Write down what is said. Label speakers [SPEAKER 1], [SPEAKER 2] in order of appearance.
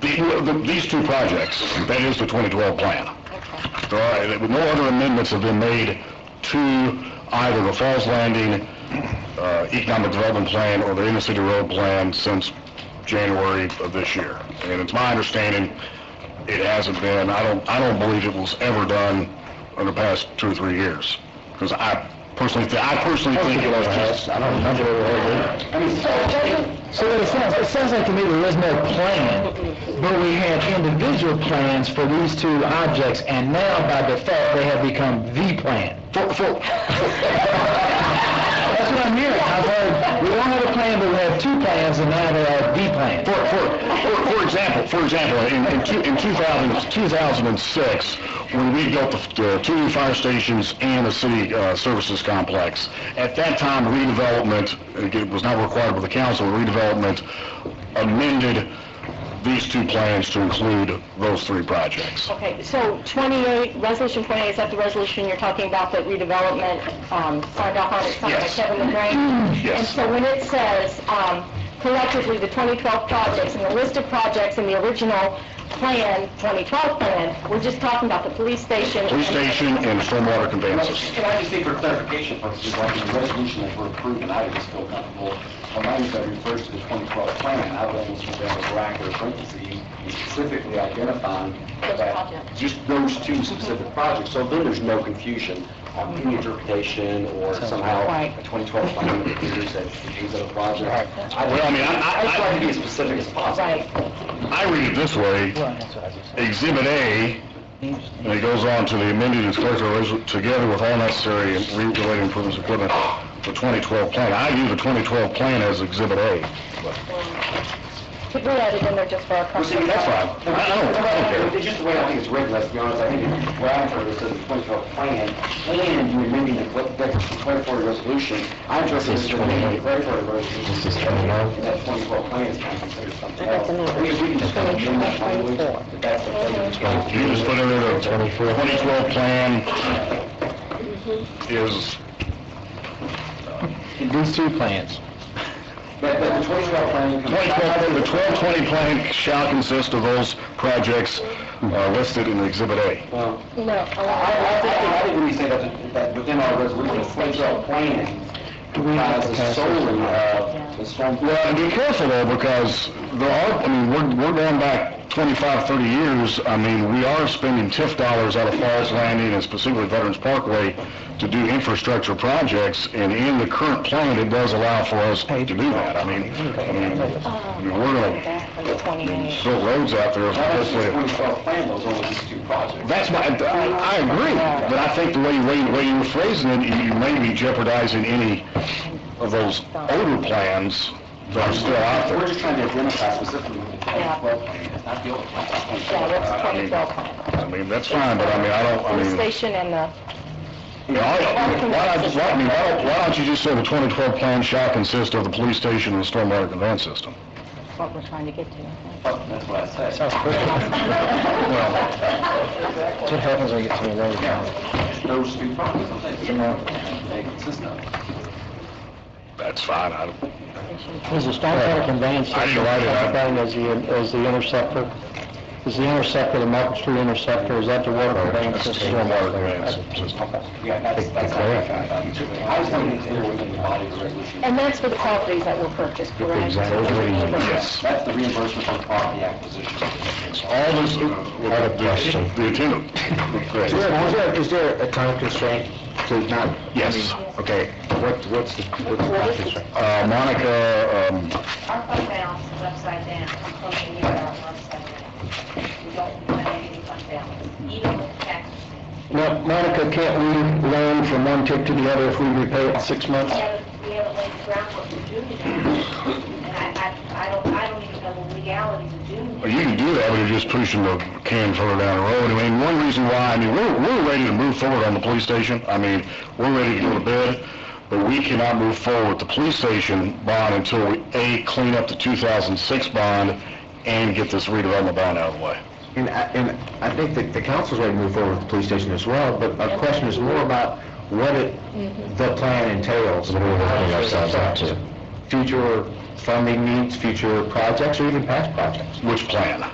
[SPEAKER 1] The- well, the- These two projects, that is the 2012 plan. There are, there- no other amendments have been made to either the Falls Landing uh, Economic Development Plan or the Inner City Road Plan since January of this year. And it's my understanding, it hasn't been, I don't, I don't believe it was ever done in the past two or three years. Because I personally, thi- I personally think it was just... I don't remember
[SPEAKER 2] I mean, So what it sounds, it sounds like to me there is no plan, but we had individual plans for these two objects, and now by default, they have become the plan. That's what I'm hearing. I've heard, we don't have a plan, but we have two plans, and now they are the plan.
[SPEAKER 1] For, for, for- for example, for example, in, in two- in 2000 2006, when we built the, the two new fire stations and the city, uh, services complex, at that time redevelopment, again, it was not required by the council, redevelopment amended these two plans to include those three projects.
[SPEAKER 3] Okay, so 28, Resolution 28, is that the resolution you're talking about that redevelopment um, signed off on, it's signed by
[SPEAKER 1] Yes.
[SPEAKER 3] Kevin LaGrange?
[SPEAKER 1] Yes.
[SPEAKER 3] And so when it says um, collectively the 2012 projects and the list of projects in the original plan, 2012 plan, we're just talking about the police station?
[SPEAKER 1] Police station and stormwater conveyances.
[SPEAKER 4] Can I just say for clarification purposes, like the resolution that we're approving, I just feel comfortable, when I use that refers to the 2012 plan, I would almost put that as a bracket or parentheses, and specifically identifying
[SPEAKER 3] Those
[SPEAKER 4] that
[SPEAKER 3] projects. Mm-hmm.
[SPEAKER 4] just those two specific projects, so then there's no confusion on any interpretation or somehow a
[SPEAKER 3] Right.
[SPEAKER 4] 2012 plan that appears that these other projects. I
[SPEAKER 1] Well, I mean, I- I-
[SPEAKER 4] just like to be as specific as possible.
[SPEAKER 3] Right,
[SPEAKER 1] I read it this way, Exhibit A, and it goes on to the amended and corrected resolution, together with all necessary and re-related improvements equipment, the 2012 plan. I view the 2012 plan as Exhibit A.
[SPEAKER 3] we added in there just for our
[SPEAKER 4] Well, see,
[SPEAKER 3] comfort.
[SPEAKER 4] that's
[SPEAKER 1] fine.
[SPEAKER 4] No, I don't, I don't care. It's just the way I think it's written, let's be honest, I think it's- what I'm trying to say is the 2012 plan, and you amending the cl- the 2040 resolution, I'm just saying, you're amending the 2040 resolution, and that 2012 plan is kind of considered something else. We we can just kind of amend that language, but that's the thing that's going to
[SPEAKER 1] You just put in there the 2012 plan is,
[SPEAKER 2] These two plans.
[SPEAKER 4] But but the 2012 plan comes...
[SPEAKER 1] 2012, the 1220 plan shall consist of those projects uh, listed in Exhibit A.
[SPEAKER 4] Well,
[SPEAKER 3] No,
[SPEAKER 4] I,
[SPEAKER 3] I-
[SPEAKER 4] I think, I think when you say that, that within our resolution, the 2012 plan, comprises solely of the storm...
[SPEAKER 1] Well, and be careful though, because there are, I mean, we're, we're going back 25, 30 years. I mean, we are spending TIF dollars out of Falls Landing and specifically Veterans Parkway to do infrastructure projects, and in the current plan, it does allow for us to do that. I mean, I mean, I mean, we're gonna
[SPEAKER 3] Back for the 28.
[SPEAKER 1] build roads out there. if
[SPEAKER 4] That
[SPEAKER 1] that's
[SPEAKER 4] was
[SPEAKER 1] the way
[SPEAKER 4] the
[SPEAKER 1] it-
[SPEAKER 4] 2012 plan, those only these two projects.
[SPEAKER 1] That's my, I I agree, but I think the way, way, way you were phrasing it, you you may be jeopardizing any of those older plans that are still out there.
[SPEAKER 4] We're just trying to identify specifically what the 2012 plan is, not the old plan.
[SPEAKER 3] Yeah, that's the 2012 plan.
[SPEAKER 1] I mean, that's fine, but I mean, I don't, I
[SPEAKER 3] Police
[SPEAKER 1] mean,
[SPEAKER 3] station and the,
[SPEAKER 1] you know, I- why not, why, I mean, why don't- why don't you just say the 2012 plan shall consist of the police station and the stormwater conveyance system?
[SPEAKER 3] what we're trying to get to.
[SPEAKER 4] That's what I said.
[SPEAKER 1] Well,
[SPEAKER 2] That's what happens when you get to a road.
[SPEAKER 4] Yeah, those two problems, I'm saying, you know, they consist of.
[SPEAKER 1] that's fine, I don't,
[SPEAKER 2] Is the stormwater conveyance
[SPEAKER 1] I didn't write it out.
[SPEAKER 2] Thing is the, is the interceptor, is the interceptor, the Market Street interceptor, is that the water conveyance
[SPEAKER 1] that's the
[SPEAKER 2] system?
[SPEAKER 1] stormwater conveyance system.
[SPEAKER 4] Yeah, that's, that's. I was thinking it's there within the body of the resolution.
[SPEAKER 3] And that's for the properties that were purchased, correct?
[SPEAKER 1] Yes.
[SPEAKER 4] That's the reimbursement for property acquisition.
[SPEAKER 1] All this, the, the attendant.
[SPEAKER 2] Is there, is there a time constraint to not?
[SPEAKER 1] Yes.
[SPEAKER 2] Okay, what, what's the, what's the time constraint?
[SPEAKER 1] Uh, Monica, um,
[SPEAKER 5] Our fund balance is upside down, I'm closing the year out upside down. We don't have any fund balance, even with taxes.
[SPEAKER 2] Now, Monica, can't we loan from one tip to the other if we repay it in six
[SPEAKER 5] We
[SPEAKER 2] months?
[SPEAKER 5] haven't, we haven't laid the groundwork for doing that. And I, I, I don't, I don't even know the legalities of doing
[SPEAKER 1] Well,
[SPEAKER 5] that.
[SPEAKER 1] You can do that, but you're just pushing the can further down the road. I mean, one reason why, I mean, we're, we're ready to move forward on the police station. I mean, we're ready to go to bed, but we cannot move forward with the police station bond until we, A, clean up the 2006 bond and get this redevelopment bond out of the way.
[SPEAKER 6] And I, and I think that the council's ready to move forward with the police station as well, but our question is more about what it, the plan entails, what we're opening ourselves up to. Future funding needs, future projects, or even past projects.
[SPEAKER 1] Which plan?